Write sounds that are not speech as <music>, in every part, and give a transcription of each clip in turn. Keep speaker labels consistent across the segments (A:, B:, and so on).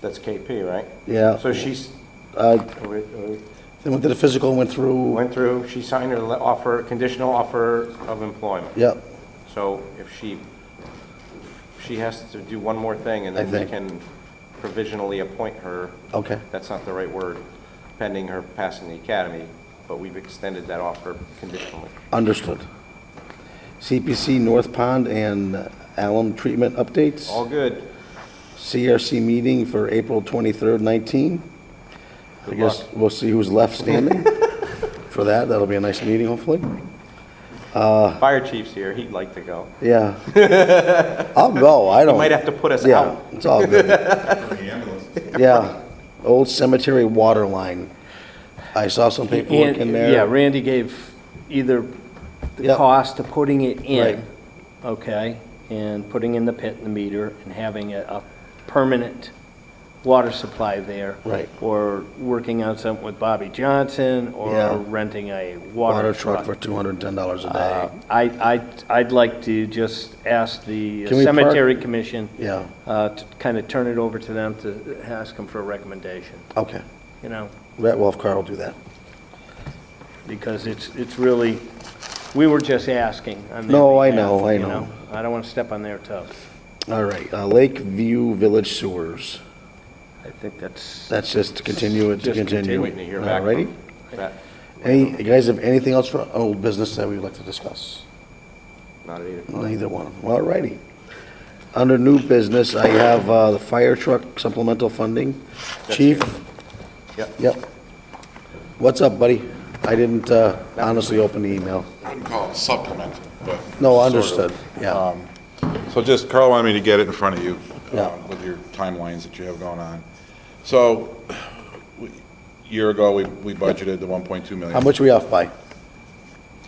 A: That's KP, right?
B: Yeah.
A: So she's,
B: Uh,
A: we- we
B: They went to the physical and went through,
A: went through, she signed her le- offer, conditional offer of employment.
B: yeah,
A: So if she, she has to do one more thing, and
B: I
A: then we
B: think-
A: can provisionally appoint her.
B: Okay.
A: That's not the right word, pending her passing the academy, but we've extended that offer conditionally.
B: understood. CPC North Pond and alum treatment updates.
A: All good.
B: CRC meeting for April 23rd, 19. I
A: Good
B: guess we'll see who's
A: <laughs>
B: left standing for that. That'll be a nice meeting, hopefully.
A: Fire chief's here, he'd like to go.
B: Yeah. I'll go, I don't.
A: Might have to put us
B: Yeah,
A: out.
B: it's all good. Yeah, old cemetery water line. I saw some paperwork in
C: And- Yeah,
B: there.
C: Randy gave either the
B: Yep.
C: cost of putting it
B: Right.
C: in, okay, and putting in the pit and the meter and having a, a permanent water supply there.
B: Right.
C: Or working on something with Bobby Johnson
B: Yeah.
C: or renting a
B: Water
C: water
B: truck
C: truck.
B: for $210 a
C: Uh,
B: day.
C: I, I, I'd like to just ask the
B: Can we park-
C: cemetery commission.
B: Yeah.
C: Uh, to kind of turn it over to them to ask them for a recommendation,
B: Okay.
C: you know?
B: Rat Wolf Car will do that.
C: because it's, it's really, we were just asking on their
B: No, I
C: behalf,
B: know, I
C: you
B: know.
C: I don't want to step on their toes.
B: All right, uh, Lakeview Village Sewers.
C: I think that's,
B: That's just to continue it, to
C: Just
B: continue. Uh,
C: continue.
A: Waiting to hear
B: All
A: back. from
B: righty.
A: That-
B: Any, you guys have anything else for old business that we'd like to discuss?
A: Not either.
B: Neither one of them. All righty. Under new business, I have uh, the fire truck supplemental funding. Chief?
A: Yep.
B: Yep. What's up, buddy? I didn't uh, honestly open the email.
D: I wouldn't call it supplement, but.
B: No,
D: sort of. Um,
B: understood, yeah.
D: So just, Carl wanted me to get it in front of you uh,
B: Yeah.
D: with your timelines that you have going on. So, we- year ago, we we budgeted the 1.2 million.
B: How much are we off by?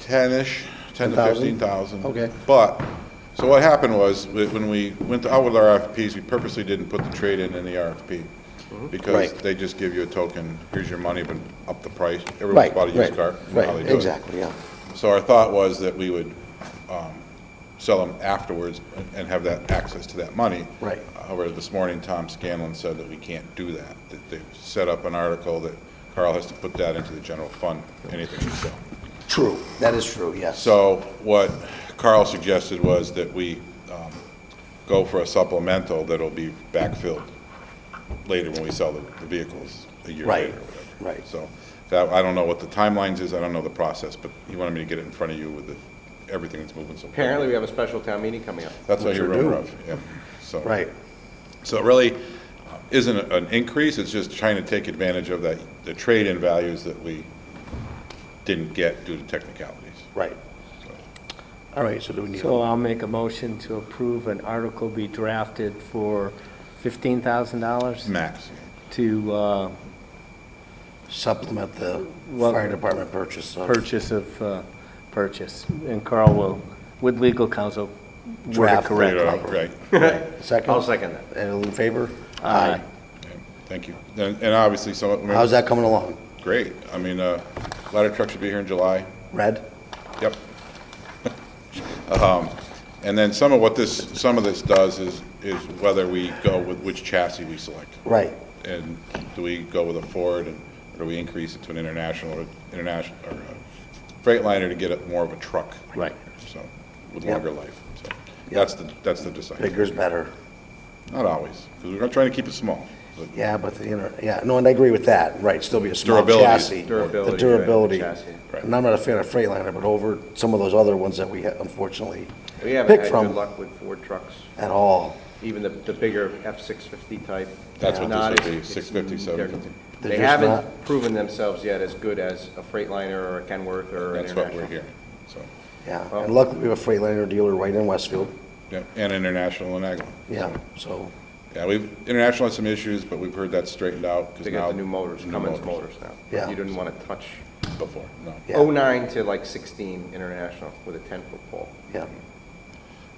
D: 10-ish, 10 to
B: 10,000?
D: 15,000.
B: Okay.
D: But, so what happened was, wh- when we went out with our RFPs, we purposely didn't put the trade-in in the RFP.
B: Mm-hmm.
D: Because
B: Right.
D: they just give you a token, here's your money, but up the price. Everyone's
B: Right,
D: bought a used
B: right,
D: car. you know how they
B: right,
D: do it.
B: exactly, yeah.
D: So our thought was that we would um, sell them afterwards and have that access to that money.
B: Right.
D: However, this morning, Tom Scanlon said that we can't do that, that they've set up an article that Carl has to put that into the general fund, anything we sell.
B: True, that is true, yes.
D: So what Carl suggested was that we um, go for a supplemental that'll be backfilled later when we sell the the vehicles a year
B: Right,
D: later. or whatever.
B: right.
D: So that, I don't know what the timelines is, I don't know the process, but he wanted me to get it in front of you with the- everything that's moving so.
A: Apparently, we have a special town meeting coming up.
D: That's what
B: Which
D: you
B: we
D: rumor
B: do.
D: of, yeah, so.
B: Right,
D: So it really isn't an increase, it's just trying to take advantage of that, the trade-in values that we didn't get due to technicalities.
B: right. All right, so do we need,
C: so I'll make a motion to approve an article be drafted for fifteen thousand dollars
D: Max.
C: to, uh,
B: supplement the
C: Well-
B: fire department purchase of
C: purchase of, uh, purchase, and Carl will, with legal counsel, word it
B: Draft.
C: correctly.
B: Right.
D: Right.
B: 2nd
A: I'll second that.
B: All in favor?
C: Aye.
D: Yeah, Thank you. And and obviously, some, I mean,
B: How's that coming along?
D: great. I mean, uh, ladder truck should be here in July.
B: Red?
D: Yep. <laughs> Um, And then some of what this, some of this does is, is whether we go with which chassis we select.
B: Right.
D: And do we go with a Ford, and or do we increase it to an international, or international, or a Freightliner to get it more of a truck?
C: Right.
D: So, with
B: Yep.
D: longer life. So, that's the, that's the deciding.
B: Bigger's better.
D: Not always, because we're trying to keep it small. but-
B: Yeah, but the, inter- yeah, no, and I agree with that, right, still be a small
D: Durability.
B: chassis.
A: Durability,
B: The
A: right,
B: durability.
A: chassis.
D: Right.
B: And I'm not a fan of Freightliner, but over some of those other ones that we ha- unfortunately
A: We haven't
B: pick
A: had good
B: from
A: luck with Ford trucks,
B: at all.
A: even the, the bigger F-650 type.
D: That's what
A: Not
D: this
A: as-
D: would be,
A: it's-
D: 650,
A: they're-
D: 750.
B: They're
A: They
B: just
A: haven't
B: not-
A: proven themselves yet as good as a Freightliner or a Kenworth or an
D: That's what we're
A: International.
D: hearing, so,
B: Yeah,
A: Well-
B: and luckily we have a Freightliner dealer right in Westfield,
D: yeah, and international and Agawam.
B: yeah, so,
D: Yeah, we've, international had some issues, but we've heard that's straightened out. 'cause
A: They got
D: now-
A: the new motors,
D: new
A: Cummins motors now.
B: Yeah.
A: You didn't want to touch
D: Before, no.
B: Yeah.
A: 09 to like 16 International with a 10-foot pole.
B: yeah.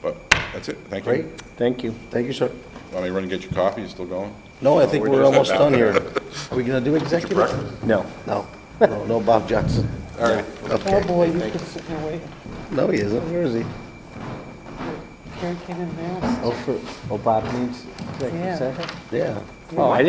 D: But that's it, thank you.
B: Great,
C: Thank you.
B: thank you, sir.
D: Want me to run and get your coffee, you still going?
B: No, I think
A: we're
B: we're
A: just
B: almost
A: about
B: done here. <laughs> Are we gonna do executive?
C: No.
B: No, no, no Bob Jackson. All right.
E: Oh,
B: Okay,
E: boy, you've been sitting here waiting.
B: no, he isn't, where is he?
E: Carrie came in there.
C: Oh, for, oh, Bob needs executive
E: Yeah.
C: session?
B: Yeah.
C: Oh, I